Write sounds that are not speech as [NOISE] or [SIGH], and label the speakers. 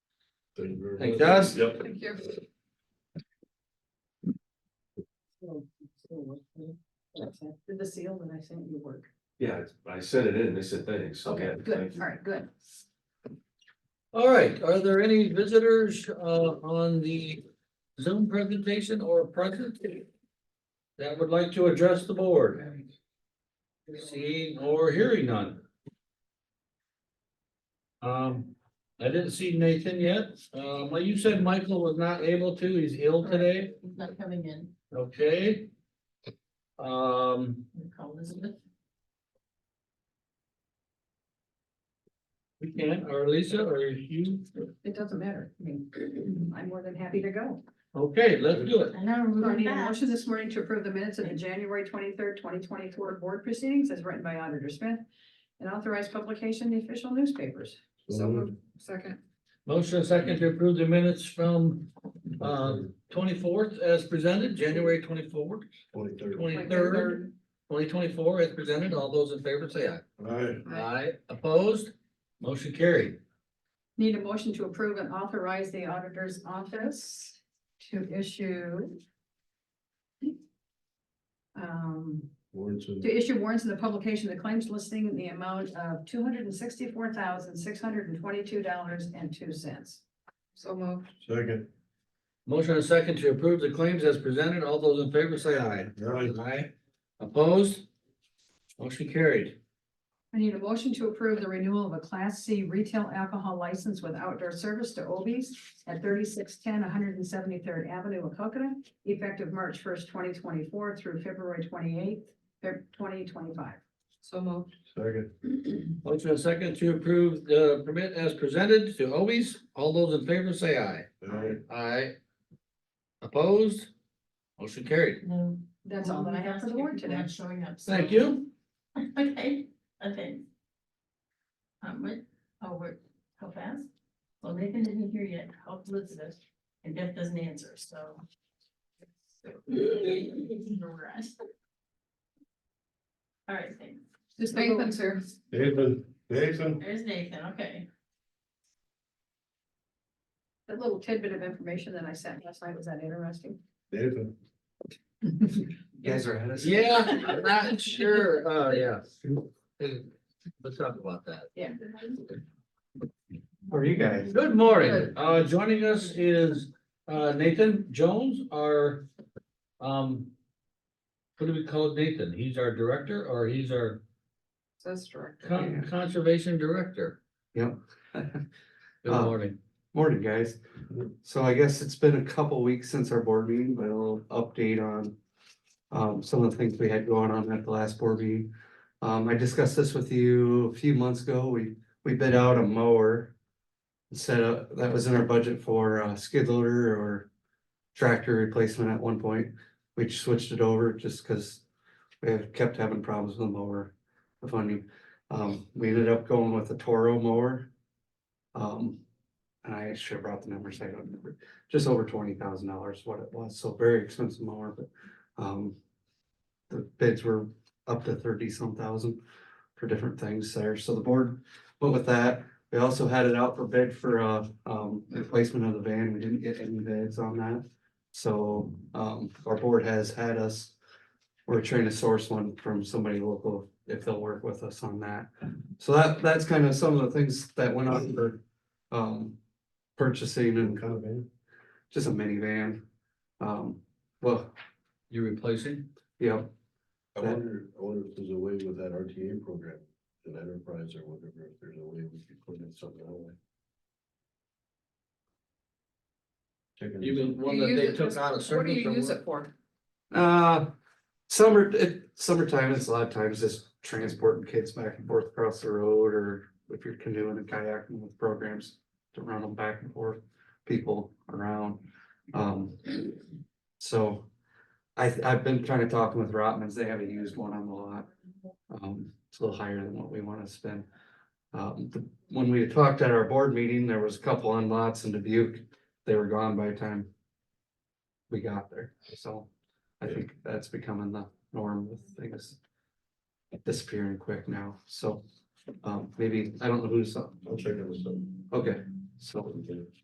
Speaker 1: Thank you very
Speaker 2: Thank
Speaker 1: much.
Speaker 2: Dust.
Speaker 1: Yep.
Speaker 3: Thank you. Did the seal that I sent you work?
Speaker 1: Yeah, I sent it in, they said thanks. so yeah,
Speaker 3: Good,
Speaker 1: thank you.
Speaker 3: all right, good.
Speaker 2: All right, are there any visitors uh on the Zoom presentation or present? That would like to address the board? Seeing or hearing none? Um, I didn't see Nathan yet. Um, well, you said Michael was not able to, he's ill today,
Speaker 3: He's not coming in.
Speaker 2: okay? Um,
Speaker 3: I'm gonna Call Elizabeth.
Speaker 2: we can, or Lisa, or you,
Speaker 3: It doesn't matter. I mean, I'm more than happy to go.
Speaker 2: okay, let's do it.
Speaker 4: I know,
Speaker 3: Do I
Speaker 4: we're
Speaker 3: need a
Speaker 4: back.
Speaker 3: motion this morning to approve the minutes of the January twenty-third, twenty twenty-four board proceedings as written by Auditor Smith and authorized publication in the official newspapers.
Speaker 1: So moved.
Speaker 3: Second.
Speaker 2: Motion and second to approve the minutes from uh
Speaker 1: Um,
Speaker 2: twenty-fourth as presented, January twenty-fourth,
Speaker 1: Twenty-third.
Speaker 2: twenty-third, twenty twenty-four as presented. All those in favor say aye.
Speaker 1: All right,
Speaker 3: Aye.
Speaker 2: Aye, opposed, motion carried.
Speaker 3: Need a motion to approve and authorize the auditor's office to issue. Um,
Speaker 1: warrants and-
Speaker 3: to issue warrants in the publication of the claims listing in the amount of two hundred and sixty-four thousand, six hundred and twenty-two dollars and two cents. So moved.
Speaker 1: second,
Speaker 2: Motion and second to approve the claims as presented. All those in favor say aye.
Speaker 1: all right,
Speaker 2: Aye, opposed, motion carried.
Speaker 3: I need a motion to approve the renewal of a Class C retail alcohol license with outdoor service to Obies at 3610 173rd Avenue, Wacokota, effective March first, twenty twenty-four through February twenty-eighth, twenty twenty-five. So moved.
Speaker 1: second,
Speaker 2: Motion and second to approve the permit as presented to Obies. All those in favor say aye.
Speaker 1: all right,
Speaker 2: Aye. Opposed, motion carried.
Speaker 4: No.
Speaker 3: That's all that I have for the board today.
Speaker 4: Not Showing up. so-
Speaker 2: Thank you.
Speaker 4: [LAUGHS] Okay, okay. Um, wait, oh, wait, how fast? Well, Nathan didn't hear yet, how Elizabeth, and Beth doesn't answer, so. [LAUGHS] All right, thanks.
Speaker 3: Just
Speaker 4: Nathan's
Speaker 3: here.
Speaker 1: Nathan, Nathan,
Speaker 4: There's Nathan, okay.
Speaker 3: That little tidbit of information that I sent last night, was that interesting?
Speaker 1: Nathan.
Speaker 5: Guys are ahead of us.
Speaker 2: Yeah, I'm [LAUGHS] not sure, oh, yeah. Hey, Let's talk about that.
Speaker 3: Yeah.
Speaker 5: How are you guys?
Speaker 2: Good morning, uh, joining us is, uh, Nathan Jones, our, um. What do we call Nathan? He's our director or he's our
Speaker 3: That's true.
Speaker 2: con- conservation director?
Speaker 5: Yep.
Speaker 2: Good
Speaker 5: Uh,
Speaker 2: morning.
Speaker 5: Morning, guys. So I guess it's been a couple weeks since our board meeting, but a little update on um, some of the things we had going on at the last board meeting. Um, I discussed this with you a few months ago. We, we bid out a mower. Set up, that was in our budget for uh, skid loader or tractor replacement at one point. We switched it over just because we have kept having problems with the mower, the funding. Um, we ended up going with a Toro mower. Um, and I should have brought the numbers, I don't remember, just over twenty thousand dollars what it was, so very expensive mower, but, um. The bids were up to thirty some thousand for different things there, so the board went with that. We also had it out for bid for, uh, um, replacement of the van, we didn't get any bids on that. So, um, our board has had us, we're trying to source one from somebody local, if they'll work with us on that. So that, that's kind of some of the things that went on for, um, purchasing and eh,
Speaker 1: Kind of, man.
Speaker 5: just a minivan. Um, well,
Speaker 2: You replacing?
Speaker 5: yeah,
Speaker 1: I wonder, I wonder if there's a way with that RTA program, an enterprise or whatever, if there's a way we could put in something that way. Checking.
Speaker 2: Even one that they took out of service. or what?
Speaker 3: for?
Speaker 5: uh, summer, it, summertime is a lot of times just transporting kids back and forth across the road or if you're canoeing and kayaking with programs to run them back and forth, people around. Um, so I, I've been kind of talking with Rotman's, they haven't used one on the lot. Um, it's a little higher than what we want to spend. Um, the- when we had talked at our board meeting, there was a couple on lots in Dubuque, they were gone by the time we got there, so I
Speaker 1: Yeah.
Speaker 5: think that's becoming the norm with things disappearing quick now, so, um, maybe, I don't know who's,
Speaker 1: I'll check on this.
Speaker 5: okay, so